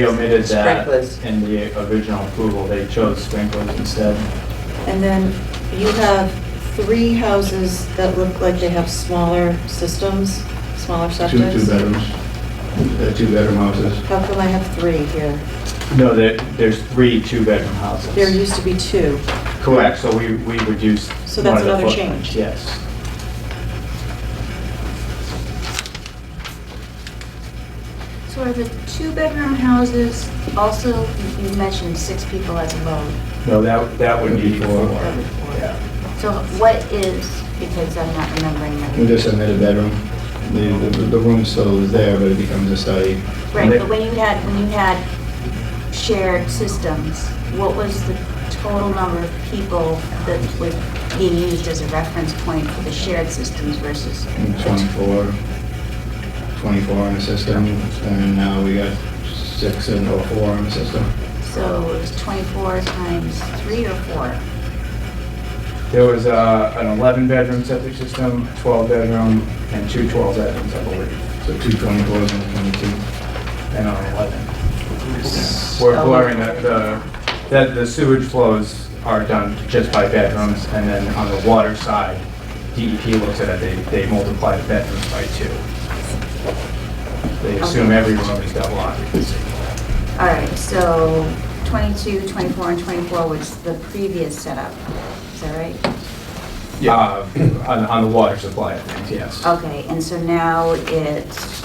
They omitted that Sprinklers. in the original approval, they chose sprinklers instead. And then you have three houses that look like they have smaller systems, smaller Two, septics. two bedrooms, uh, two bedroom houses. How come I have three here? No, there, there's three two-bedroom houses. There used to be two. Correct, so we, we reduced. So that's one of the another footprints, change. Yes. So are the two-bedroom houses also, you mentioned six people as a load. No, that, that would be four. Yeah. So what is, because I'm not remembering We that. just submitted bedroom. The, the, the room still is there, but it becomes a study. Right, but when you had, when you had shared systems, what was the total number of people that were being used as a reference point for the shared systems versus? the two? 24, 24 on the system, and now we got six and or four on the system. So it was 24 times three or four? There was uh, an 11-bedroom septic system, 12-bedroom, and two 12-bedrooms, I believe, So two 24s and a 22. and an 11. We're blurring the- the, that the sewage flows are done just by bedrooms, and then on the water side, DEP looks at it, they, they multiply the bedrooms by two. They assume every room is double occupancy. All right, so 22, 24, and 24 was the previous setup, is that right? Yeah. Uh, On, on the water supply of things, yes. Okay, and so now it's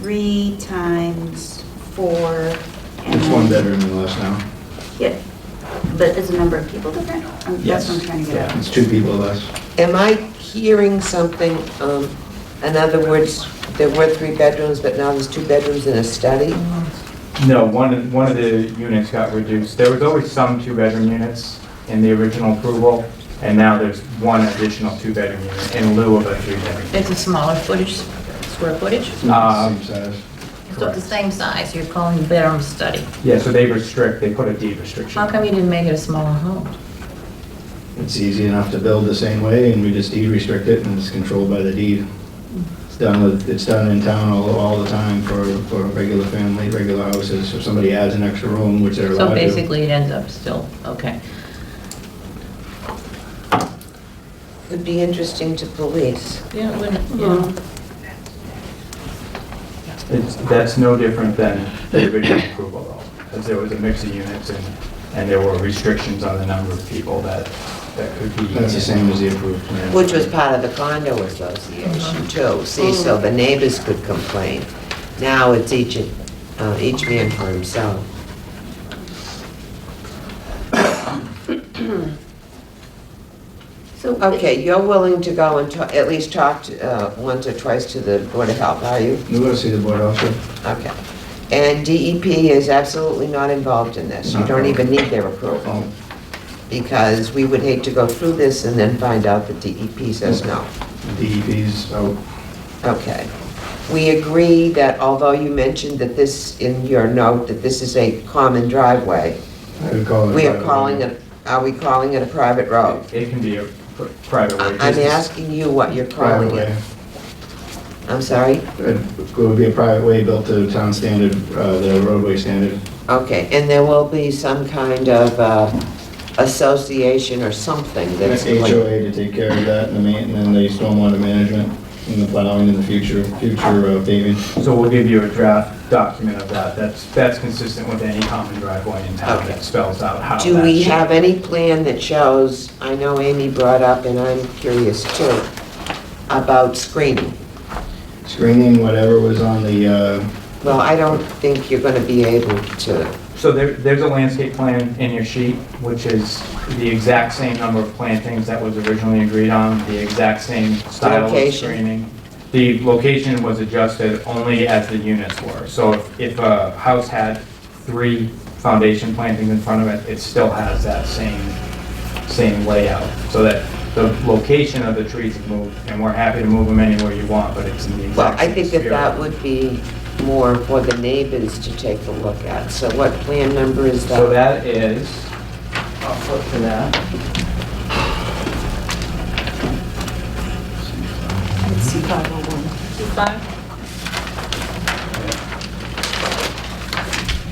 three times four and... It's one bedroom and less now. Yeah, but is the number of people different? Um, That's Yes. what I'm trying to get at. It's two people less. Am I hearing something, um, in other words, there were three bedrooms, but now there's two bedrooms in a study? No, one, of- one of the units got reduced. There was always some two-bedroom units in the original approval, and now there's one additional two-bedroom unit in lieu of a three-bedroom. It's a smaller footage, square footage, It's not the Same size. so it's the same size, you're calling it bedroom study. Yeah, so they restrict, they put a deed restriction. How come you didn't make it a smaller home? It's easy enough to build the same way, and we just deed restrict it, and it's controlled by the deed. It's done with, it's done in town all, all the time for, for regular family, regular houses. If somebody adds an extra room, which they're So allowed to. basically, it ends up still, okay. Would be interesting to police. Yeah, it wouldn't, Yeah. yeah. It's, that's no different than the original approval though, because there was a mix of units and, and there were restrictions on the number of people that, that could be. That's the same as the approved plan. Which was part of the condo association too, see, so the neighbors could complain. Now it's each, uh, each man for himself. So Okay, you're willing to go and ta- at least talk to, uh, once or twice to the Board of Health, are you? You want to see the board also? Okay. And DEP is absolutely not involved in this. You don't even need their approval, Oh, because we would hate to go through this and then find out that DEP says no. DEP's out. Okay. We agree that although you mentioned that this, in your note, that this is a common driveway, I would call it. we are calling it, are we calling it a private road? It can be a pr- private I- way. I'm business. asking you what you're Private calling way. it. I'm sorry? It would be a private way built to town standard, uh, the roadway standard. Okay, and there will be some kind of uh, association or something that's linked. HOA to take care of that, and the main, and the stormwater management, and the plowing in the future, future uh, paving. So we'll give you a draft document of that, that's, that's consistent with any common driveway in town Okay. that spells out how that. Do we should- have any plan that shows, I know Amy brought up, and I'm curious too, about screening? Screening, whatever was on the, uh, Well, I don't think you're gonna be able to, So there, there's a landscape plan in your sheet, which is the exact same number of plantings that was originally agreed on, the exact same style of Location. screening. The location was adjusted only as the units were. So if, if a house had three foundation plantings in front of it, it still has that same, same layout. So that the location of the trees have moved, and we're happy to move them anywhere you want, but it's in the well, exact I same think that sphere. that would be more for the neighbors to take a look at. So what plan number is So that? that is, I'll flip to that. It's C501. Two five?